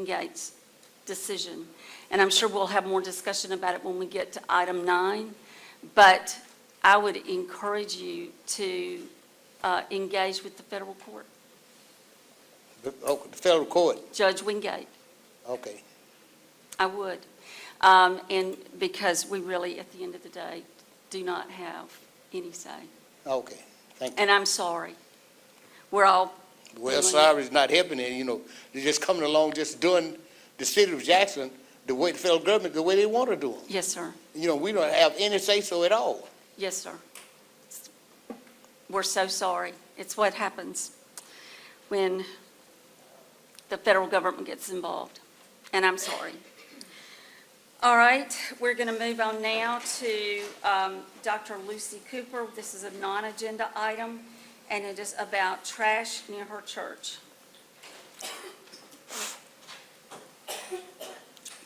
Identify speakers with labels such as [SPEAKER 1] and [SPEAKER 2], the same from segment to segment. [SPEAKER 1] Wingate's decision. And I'm sure we'll have more discussion about it when we get to item nine. But I would encourage you to uh, engage with the federal court,
[SPEAKER 2] Oh, the federal court,
[SPEAKER 1] Judge Wingate.
[SPEAKER 2] okay.
[SPEAKER 1] I would. Um, And because we really, at the end of the day, do not have any say.
[SPEAKER 2] Okay, thank you.
[SPEAKER 1] And I'm sorry. We're all,
[SPEAKER 2] Well,
[SPEAKER 1] Doing-
[SPEAKER 2] sorry, it's not helping it, you know, they're just coming along, just doing the city of Jackson, the way the federal government, the way they want to do them.
[SPEAKER 1] yes, sir.
[SPEAKER 2] You know, we don't have any say-so at all.
[SPEAKER 1] Yes, sir. We're so sorry. It's what happens when the federal government gets involved, and I'm sorry. All right, we're going to move on now to um, Dr. Lucy Cooper. This is a non-agenda item, and it is about trash near her church.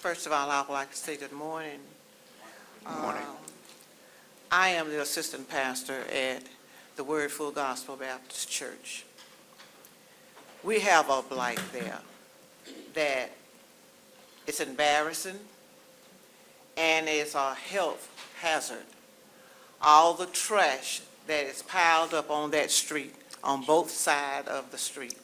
[SPEAKER 3] First of all, I would like to say good morning. Morning. I am the assistant pastor at the Word Full Gospel Baptist Church. We have a blight there that it's embarrassing and it's a health hazard. All the trash that is piled up on that street, on both sides of the street.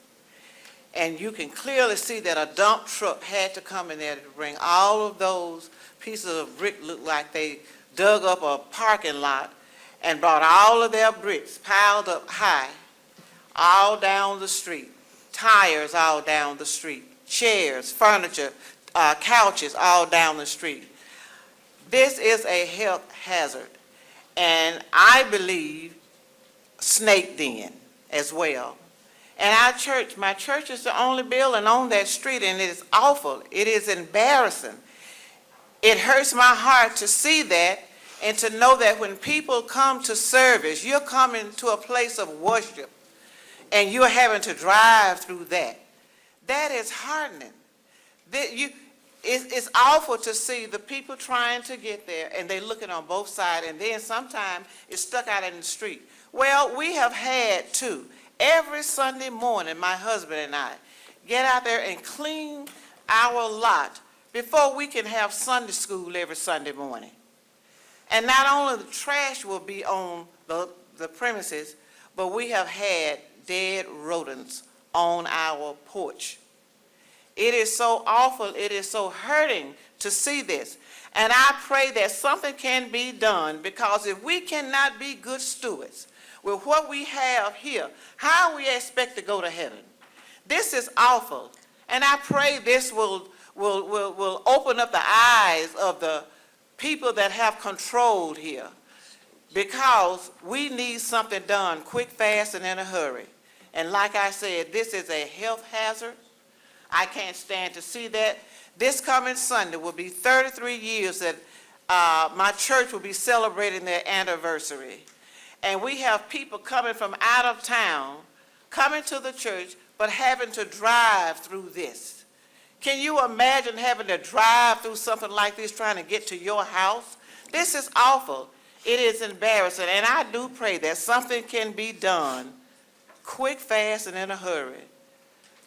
[SPEAKER 3] And you can clearly see that a dump truck had to come in there to bring all of those pieces of brick, looked like they dug up a parking lot and brought all of their bricks piled up high, all down the street, tires all down the street, chairs, furniture, uh, couches all down the street. This is a health hazard, and I believe snake den as well. And our church, my church is the only building on that street, and it is awful. It is embarrassing. It hurts my heart to see that and to know that when people come to service, you're coming to a place of worship, and you're having to drive through that. That is heartening. That you, it's, it's awful to see the people trying to get there, and they looking on both sides, and then sometimes it's stuck out in the street. Well, we have had to. Every Sunday morning, my husband and I get out there and clean our lot before we can have Sunday school every Sunday morning. And not only the trash will be on the, the premises, but we have had dead rodents on our porch. It is so awful, it is so hurting to see this. And I pray that something can be done, because if we cannot be good stewards with what we have here, how we expect to go to heaven? This is awful. And I pray this will, will, will, will open up the eyes of the people that have control here, because we need something done quick, fast, and in a hurry. And like I said, this is a health hazard. I can't stand to see that. This coming Sunday will be 33 years that uh, my church will be celebrating their anniversary. And we have people coming from out of town, coming to the church, but having to drive through this. Can you imagine having to drive through something like this, trying to get to your house? This is awful. It is embarrassing, and I do pray that something can be done, quick, fast, and in a hurry,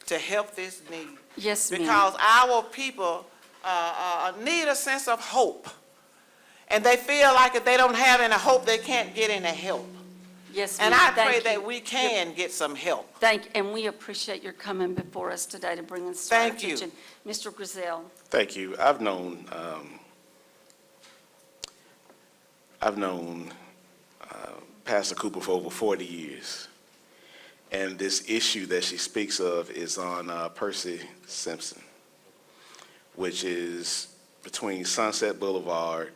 [SPEAKER 3] to help this need
[SPEAKER 1] Yes, ma'am.
[SPEAKER 3] because our people uh, uh, need a sense of hope. And they feel like if they don't have any hope, they can't get any help.
[SPEAKER 1] Yes, ma'am.
[SPEAKER 3] And I
[SPEAKER 1] Thank
[SPEAKER 3] pray
[SPEAKER 1] you.
[SPEAKER 3] that we can get some help.
[SPEAKER 1] Thank, and we appreciate your coming before us today to bring us to our
[SPEAKER 3] Thank you.
[SPEAKER 1] attention. Mr. Griselle,
[SPEAKER 4] Thank you. I've known, um, I've known uh, Pastor Cooper for over 40 years. And this issue that she speaks of is on uh, Percy Simpson, which is between Sunset Boulevard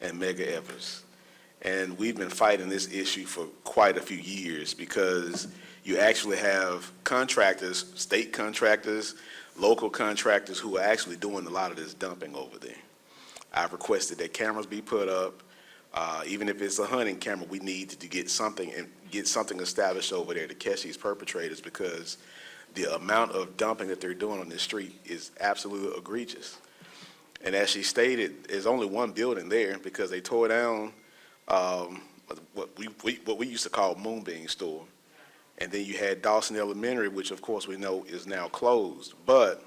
[SPEAKER 4] and Mega Evers. And we've been fighting this issue for quite a few years because you actually have contractors, state contractors, local contractors who are actually doing a lot of this dumping over there. I've requested that cameras be put up, uh, even if it's a hunting camera, we need to get something and get something established over there to catch these perpetrators because the amount of dumping that they're doing on this street is absolutely egregious. And as she stated, there's only one building there because they tore down, um, what we, we, what we used to call Moonbeam Store. And then you had Dawson Elementary, which of course we know is now closed. But